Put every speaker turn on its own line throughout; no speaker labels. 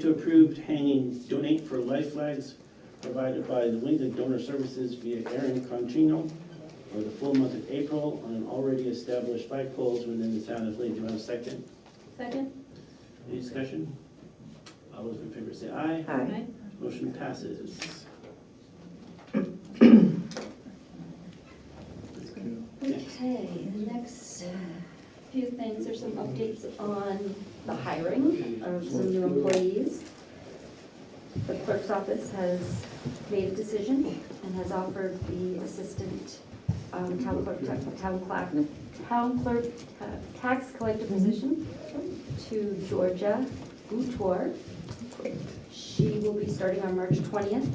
to approve hanging donate for life flags provided by the Lincoln Donor Services via Aaron Conchino for the full month of April on already established flag poles within the town of Lee. Do you have a second?
Second?
Any discussion? All those in favor say aye.
Aye.
Motion passes.
Okay, the next few things are some updates on the hiring of some new employees. The clerk's office has made a decision and has offered the assistant um, town clerk, town clerk, town clerk, ta- tax collector position to Georgia Gutor. She will be starting on March 20th.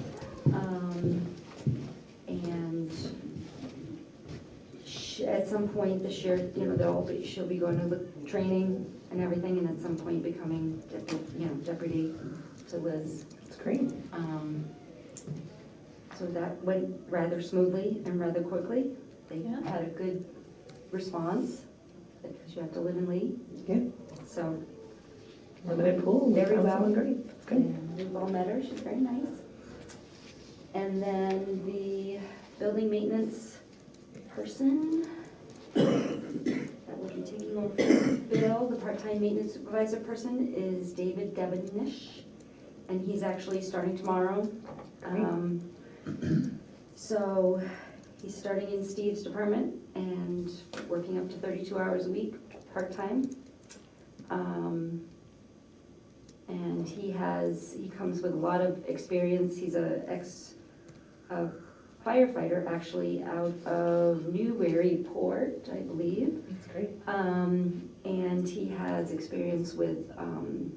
um, And sh- at some point this year, you know, they'll be, she'll be going to the training and everything, and at some point becoming, dep- you know, deputy to Liz.
It's great.
Um, So that went rather smoothly and rather quickly. They
Yeah.
had a good response, because you have to live in Lee,
Yeah.
so.
Limited pool.
Very
Sounds
well.
Great. It's good.
And We've all met her, she's very nice. And then the building maintenance person that will be taking over Bill, the part-time maintenance supervisor person, is David Devenish, and he's actually starting tomorrow. Um, So he's starting in Steve's department and working up to 32 hours a week, part-time. Um, and he has, he comes with a lot of experience. He's a ex a firefighter, actually, out of Newburyport, I believe.
It's great.
Um, and he has experience with, um,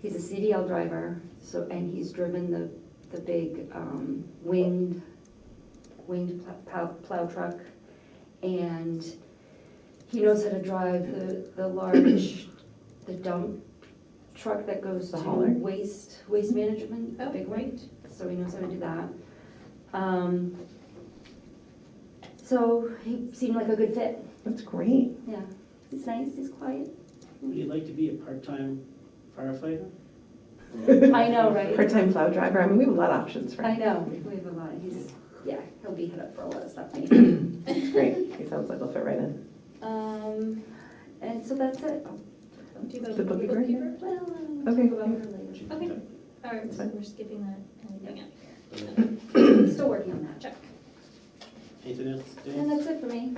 he's a CDL driver, so, and he's driven the, the big, um, winged, winged pl- plow, plow truck. And he knows how to drive the, the large, the dump truck that goes to
The hauler?
waste, waste management,
Oh,
big one so he knows how to do that. Um, so he seemed like a good fit.
That's great.
Yeah, he's nice, he's quiet.
Would you like to be a part-time firefighter?
I know, right?
Part-time plow driver. I mean, we have a lot of options,
I
right?
know, we have a lot, he's, yeah, he'll be hit up for a lot of stuff. maybe.
It's great. He sounds like he'll fit right in.
Um, and so that's it.
Do you go
The
to the
bookkeeper?
bookkeeper?
Well, I'll
Okay.
um, talk about her
Okay, all right, so
Fine.
we're skipping that and leaving it here.
later. Still working on that.
Check.
Anything else, Dan?
And that's it for me.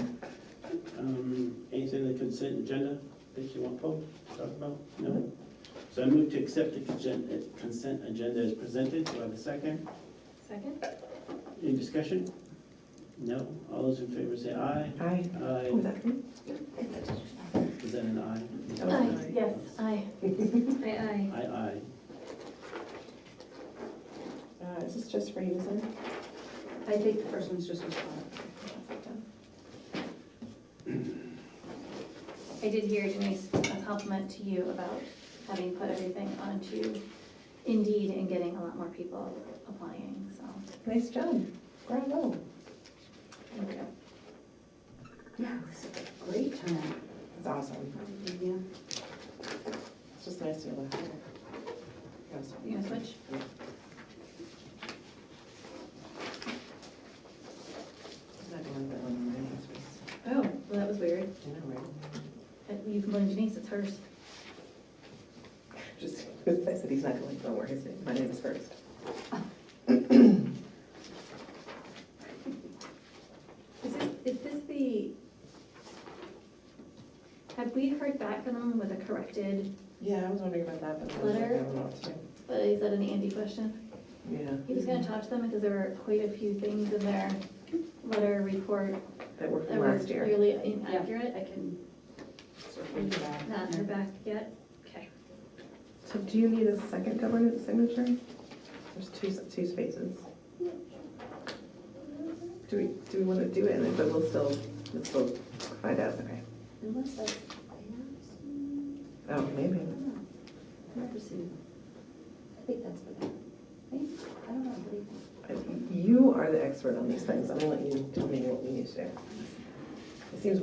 Um, Anything on the consent agenda that you want Paul to talk about? No? So I move to accept the consent, uh, consent agenda as presented. Do I have a second?
Second?
Any discussion? No? All those in favor say aye.
Aye. Oh, is
Aye.
that great?
Is that an aye?
That was
Aye.
nice.
Yes.
Aye. Aye,
Aye, aye.
Uh, Is this just for you, is it?
I think the first one's just responding.
I did hear Denise, a compliment to you about having put everything onto Indeed and getting a lot more people applying, so.
Nice job. Bravo.
there we go.
Yeah, it was a great turnout.
That's awesome.
Yeah.
It's just nice to be able to have it. That was
You gonna switch?
Not gonna let that one in my house.
Oh, well, that was weird.
I know, right?
Uh, You can go to Denise, it's hers.
Just, I said he's not going, don't worry, his name, my name is first.
Is this, is this the, have we heard back from them with a corrected,
Yeah, I was wondering about that, but I was like, I
Letter?
don't know what to do.
but is that an Andy question?
Yeah,
He was gonna talk to them because there were quite a few things in their letter report
that worked
that
from
were
last year.
clearly
Yeah,
inaccurate.
I can circle you back.
Not in her back yet, okay.
So do you need a second governance signature? There's two, s- two spaces. Do we, do we want to do it, and then, but we'll still, we'll still find out, okay?
Unless that's,
Oh, maybe.
I don't know. Never seen them. I think that's for that. Right? I don't know, what do you think?
I- You are the expert on these things, I'm gonna let you tell me what we need to do. It seems